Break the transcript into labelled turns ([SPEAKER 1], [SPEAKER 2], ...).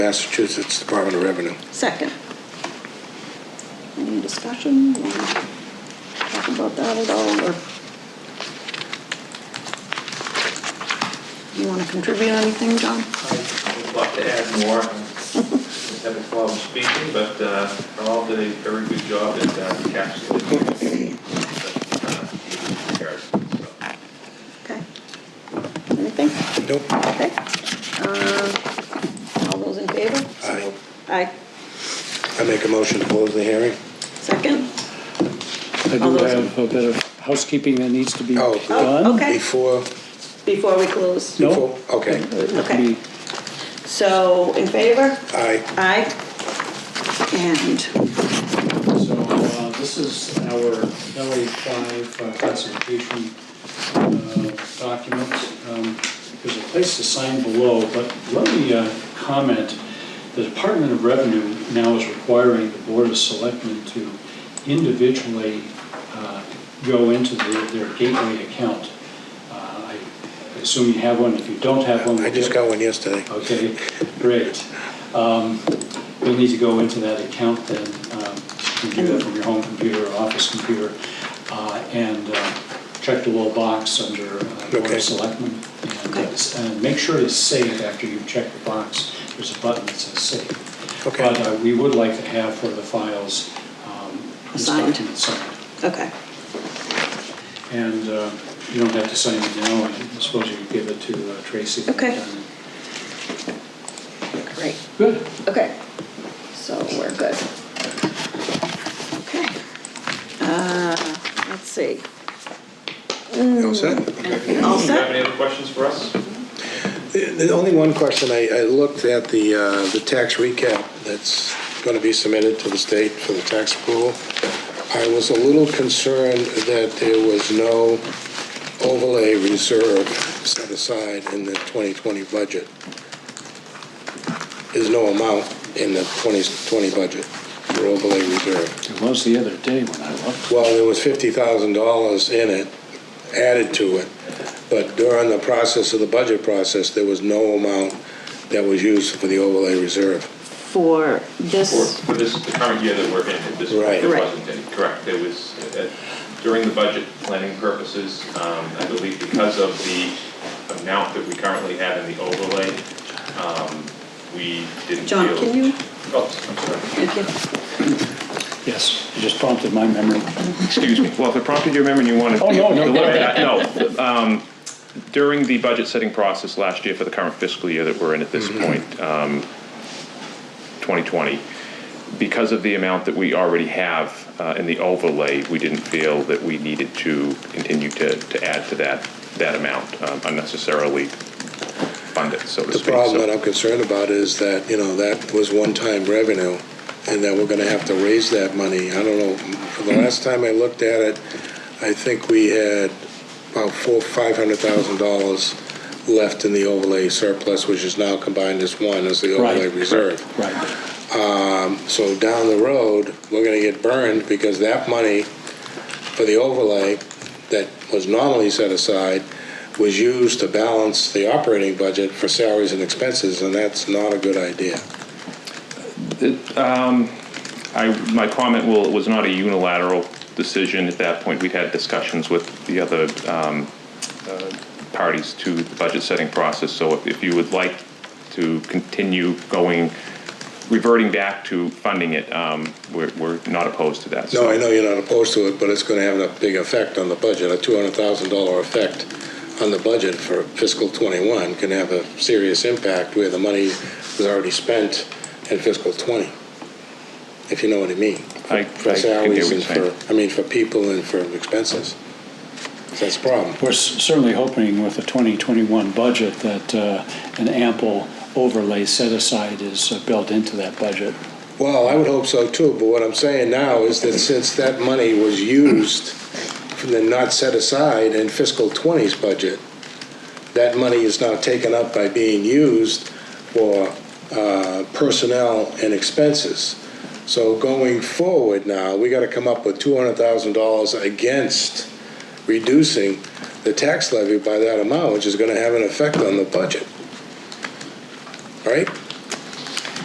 [SPEAKER 1] Massachusetts Department of Revenue.
[SPEAKER 2] Second. Any discussion? Wanna Talk about that at all, or? You want to contribute anything, John?
[SPEAKER 3] I'd like to add more. I Haven't problem speaking, but uh, Carl did a very good job at uh, encapsulating. uh, so.
[SPEAKER 2] Okay. Anything?
[SPEAKER 1] Nope.
[SPEAKER 2] Okay. Uh, All those in favor?
[SPEAKER 1] Aye.
[SPEAKER 2] Aye.
[SPEAKER 1] I make a motion to close the hearing.
[SPEAKER 2] Second?
[SPEAKER 4] I
[SPEAKER 2] All
[SPEAKER 4] do
[SPEAKER 2] those-
[SPEAKER 4] have a bit of housekeeping that needs to be
[SPEAKER 1] Oh,
[SPEAKER 4] done.
[SPEAKER 1] good.
[SPEAKER 2] Oh, okay.
[SPEAKER 1] Before,
[SPEAKER 2] Before we close?
[SPEAKER 4] No.
[SPEAKER 1] before, okay.
[SPEAKER 4] It could
[SPEAKER 2] Okay.
[SPEAKER 4] be-
[SPEAKER 2] So, in favor?
[SPEAKER 1] Aye.
[SPEAKER 2] Aye. And,
[SPEAKER 5] So uh, this is our LA five uh, classification uh, document. Um, There's a place to sign below, but let me uh, comment. The Department of Revenue now is requiring the Board of Selectmen to individually uh, go into the- their gateway account. Uh, I assume you have one. If you don't have one.
[SPEAKER 1] I just got one yesterday.
[SPEAKER 5] Okay, great. Um, You'll need to go into that account then, um, you can do
[SPEAKER 2] Mm-hmm.
[SPEAKER 5] that from your home computer or office computer, uh, and uh, check the little box under uh, Board
[SPEAKER 1] Okay.
[SPEAKER 5] of Selectmen. and, uh,
[SPEAKER 2] Okay.
[SPEAKER 5] s- And make sure to save after you check the box, there's a button that says save.
[SPEAKER 1] Okay.
[SPEAKER 5] But uh, we would like to have for the files, um, this
[SPEAKER 2] Signed.
[SPEAKER 5] document signed.
[SPEAKER 2] okay.
[SPEAKER 5] And uh, you don't have to sign it now, I suppose you could give it to uh, Tracy.
[SPEAKER 2] Okay. Great.
[SPEAKER 5] Good.
[SPEAKER 2] Okay, so we're good. Okay. Uh, Let's see.
[SPEAKER 1] You all set?
[SPEAKER 2] Anything all
[SPEAKER 3] Do you have
[SPEAKER 2] set?
[SPEAKER 3] any other questions for us?
[SPEAKER 1] The the only one question, I, I looked at the, uh, the tax recap that's going to be submitted to the state for the tax approval. I was a little concerned that there was no overlay reserve set aside in the 2020 budget. There's no amount in the 2020 budget for overlay reserve.
[SPEAKER 4] It was the other day when I looked.
[SPEAKER 1] Well, there was fifty thousand dollars in it, added to it, but during the process of the budget process, there was no amount that was used for the overlay reserve.
[SPEAKER 2] For
[SPEAKER 3] For
[SPEAKER 2] this,
[SPEAKER 3] for this, the current year that we're in, at this
[SPEAKER 1] Right.
[SPEAKER 3] point, there
[SPEAKER 2] Right.
[SPEAKER 3] wasn't any, correct. There was, uh, during the budget planning purposes, um, I believe because of the amount that we currently have in the overlay, um, we didn't feel.
[SPEAKER 2] John, can you-
[SPEAKER 3] Oh, I'm sorry.
[SPEAKER 2] thank you.
[SPEAKER 4] Yes, it just prompted my memory.
[SPEAKER 6] Excuse me. Well, if it prompted your memory and you wanted to.
[SPEAKER 4] Oh, no, no, go
[SPEAKER 6] to look
[SPEAKER 4] ahead.
[SPEAKER 6] at- No. um, During the budget setting process last year for the current fiscal year that we're in at this
[SPEAKER 4] Mm-hmm.
[SPEAKER 6] point, um, 2020, because of the amount that we already have uh, in the overlay, we didn't feel that we needed to continue to, to add to that, that amount um, unnecessarily fund it, so to
[SPEAKER 1] The
[SPEAKER 6] speak.
[SPEAKER 1] problem
[SPEAKER 6] So-
[SPEAKER 1] that I'm concerned about is that, you know, that was one-time revenue, and that we're gonna have to raise that money. I don't know, for the last time I looked at it, I think we had about four, five hundred thousand dollars left in the overlay surplus, which is now combined as one as the overlay
[SPEAKER 4] Right.
[SPEAKER 1] reserve.
[SPEAKER 4] Right.
[SPEAKER 1] So down the road, we're gonna get burned because that money for the overlay that was normally set aside was used to balance the operating budget for salaries and expenses, and that's not a good idea.
[SPEAKER 6] um, I, my comment will, was not a unilateral decision at that point. We'd had discussions with the other um, uh, parties to the budget setting process. So if- if you would like to continue going, reverting back to funding it, um, we're, we're not opposed to that.
[SPEAKER 1] No,
[SPEAKER 6] So-
[SPEAKER 1] I know you're not opposed to it, but it's gonna have a big effect on the budget. A two hundred thousand dollar effect on the budget for fiscal twenty-one can have a serious impact where the money was already spent in fiscal twenty, if you know what I mean.
[SPEAKER 6] I- I
[SPEAKER 1] For
[SPEAKER 6] can hear
[SPEAKER 1] salaries and
[SPEAKER 6] what you're saying.
[SPEAKER 1] for, I mean, for people and for expenses. That's a problem.
[SPEAKER 4] We're s- certainly hoping with the 2021 budget that uh, an ample overlay set aside is uh, built into that budget.
[SPEAKER 1] Well, I would hope so too, but what I'm saying now is that since that money was used and not set aside in fiscal twenty's budget, that money is now taken up by being used for uh, personnel and expenses. So going forward now, we gotta come up with two hundred thousand dollars against reducing the tax levy by that amount, which is gonna have an effect on the budget. Right?